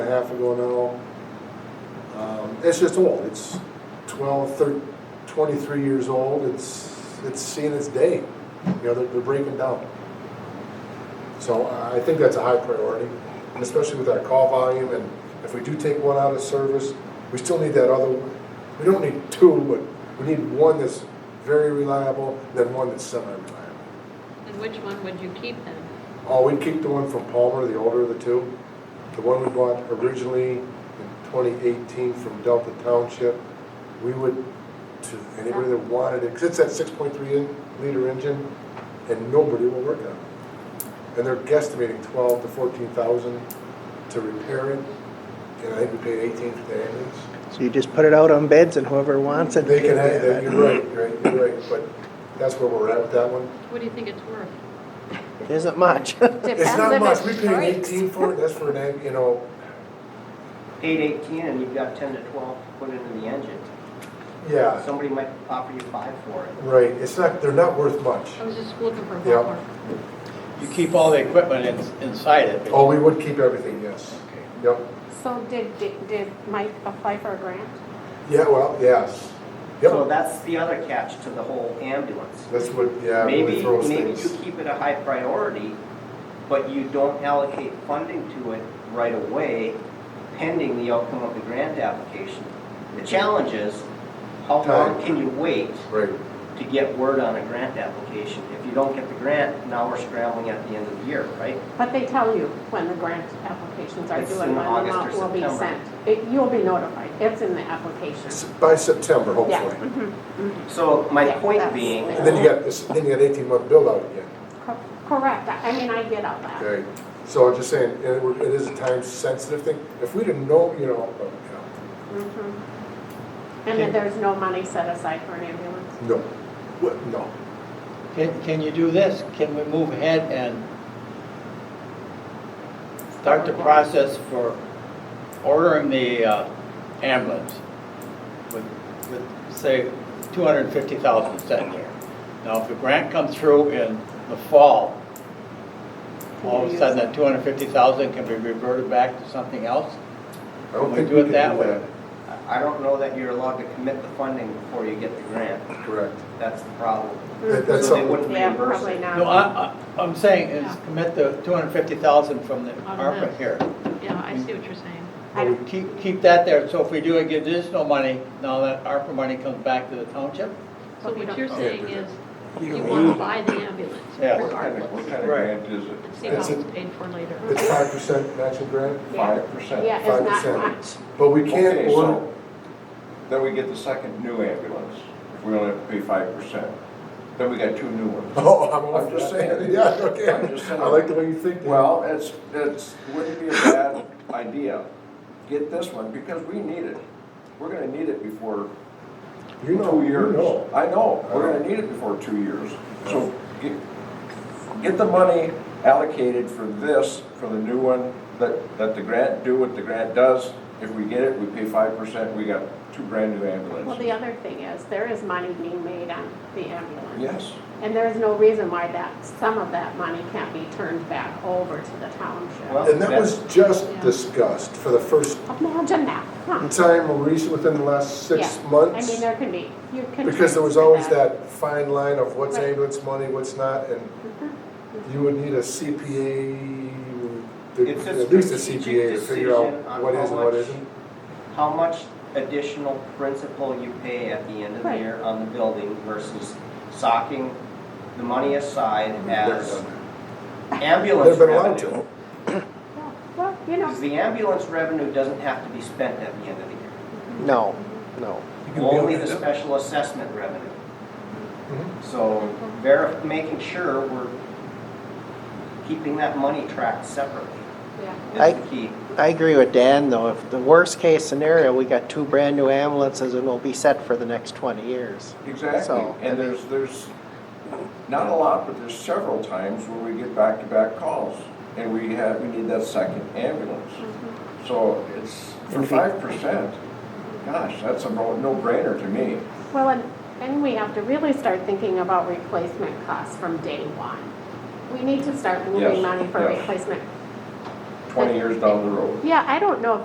a half ago now. Um, It's just old, it's 12, 13, 23 years old, it's, it's seeing its day, you know, they're, they're breaking down. So uh, I I think that's a high priority, and especially with our call volume, and if we do take one out of service, we still need that other, we don't need two, but we need one that's very reliable, then one that's semi-reliable. And which one would you keep then? Oh, we keep the one from Palmer, the older of the two. The one we bought originally in 2018 from Delta Township, we would, to anybody that wanted it, because it's that 6.3 in- liter engine, and nobody will work on it. And they're guesstimating 12 to 14,000 to repair it, and I think we paid 18 for the ambulance. So you just put it out on beds and whoever wants it. They can, have that. you're right, you're right, you're right, but that's where we're at with that one. What do you think it's worth? Isn't much. It's not much, Depends we if it paid breaks. 18 for it, that's for an, amb- you know, Eight eighteen, and you've got ten to twelve to put into the engine. yeah. Somebody might offer you five for it. Right, it's not, they're not worth much. I was just looking for a Yeah. ballpark. You keep all the equipment in- inside it? Oh, we would keep everything, yes. Okay. Yep. So did, did did Mike apply for a grant? Yeah, well, yes. So Yep. that's the other catch to the whole ambulance. That's what, yeah, really Maybe, throws maybe you things. keep it a high priority, but you don't allocate funding to it right away pending the outcome of the grant application. The challenge is, how Time. long can you wait Right, to get word on a grant application? If you don't get the grant, now we're scrambling at the end of the year, right? But they tell you when the grant applications are It's due and in when the August or amount will be September. sent. It- You'll be notified, it's in the application. S- by September, Yeah, hopefully. So my Yeah, point that's- being, And then you got, this- then you got eighteen month build out again, cor- correct, I I mean, I get all that. okay? So I'm just saying, it would- it is a time sensitive thing. If we didn't know, you know, uh, but, you Mhm. And then there's no money set aside for an ambulance? know, no, What- no. Can, can you do this? Can we move ahead and start the process for ordering the uh, ambulance with, with, say, two hundred and fifty thousand sitting there? Now, if the grant comes through in the fall, all of a sudden, that two hundred and fifty thousand can be reverted back to something else? I don't We think do we it could that way. I don't know that you're allowed to commit the funding before you get the grant. Correct. That's the problem. That- That's So they something, wouldn't Yeah, reimburse probably it. not. No, I, I, I'm saying is commit the two hundred and fifty thousand from the Out of ARPA this. here. Yeah, I see what you're saying. I don't- Keep, keep that there, so if we do get additional money, now that ARPA money comes back to the township? So But we what don't- you're Yeah, saying there's is, you want to buy the ambulance Yeah. What kind of, what regardless, kind of Right. grant is it? and see how That's it's it. paid for later. it's five percent matching grant, Yeah. Five percent? Yeah, Five it's not percent. much. but we can't Okay, so order, Then we get the second new ambulance, if we only have to pay five percent. Then we got two new ones. oh, I'm, I'm just saying. yeah, okay. I'm just saying. I like the way you think. Well, Well, it's, it's, wouldn't be a bad idea, get this one, because we need it. We're gonna need it before you know, two you years. know. I know, we're gonna need it before two years. So get, get the money allocated for this, for the new one, let, let the grant do what the grant does. If we get it, we pay five percent, we got two brand-new Well, ambulances. the other thing is, there is money being made on the ambulance. Yes, And there is no reason why that, some of that money can't be turned back over to the township. Well- And that was just Yeah. discussed for the first Imagine that, huh? time recent, within the last six Yeah. I mean, months. there can be, you can. Because there was transfer always that fine line of what's Right. ambulance money, what's not, and Mhm. you would need a CPA, It's a at least a strategic CPA to figure out decision on what how is and what much- isn't. How much additional principal you pay at the end of the Right. year on the building versus socking the money aside Never as done that. ambulance Never been allowed revenue. to. Yeah. Well, you know, Because the ambulance revenue doesn't have to be spent at the end of the year. No, no. Only the special assessment revenue. Mhm. So verif, making sure we're keeping that money tracked separately yeah. I- is the key. I agree with Dan, though, if the worst-case scenario, we got two brand-new ambulances and we'll be set for the next twenty years. exactly. So- And there's, there's, not a lot, but there's several times where we get back-to-back calls and we have, we need that second ambulance. So it's, for And if you- five percent, gosh, that's a no- no-brainer to me. Well, and, and we have to really start thinking about replacement costs from day one. We need to start moving Yes, money for yes. replacement. Twenty years down the road. Yeah, I don't know if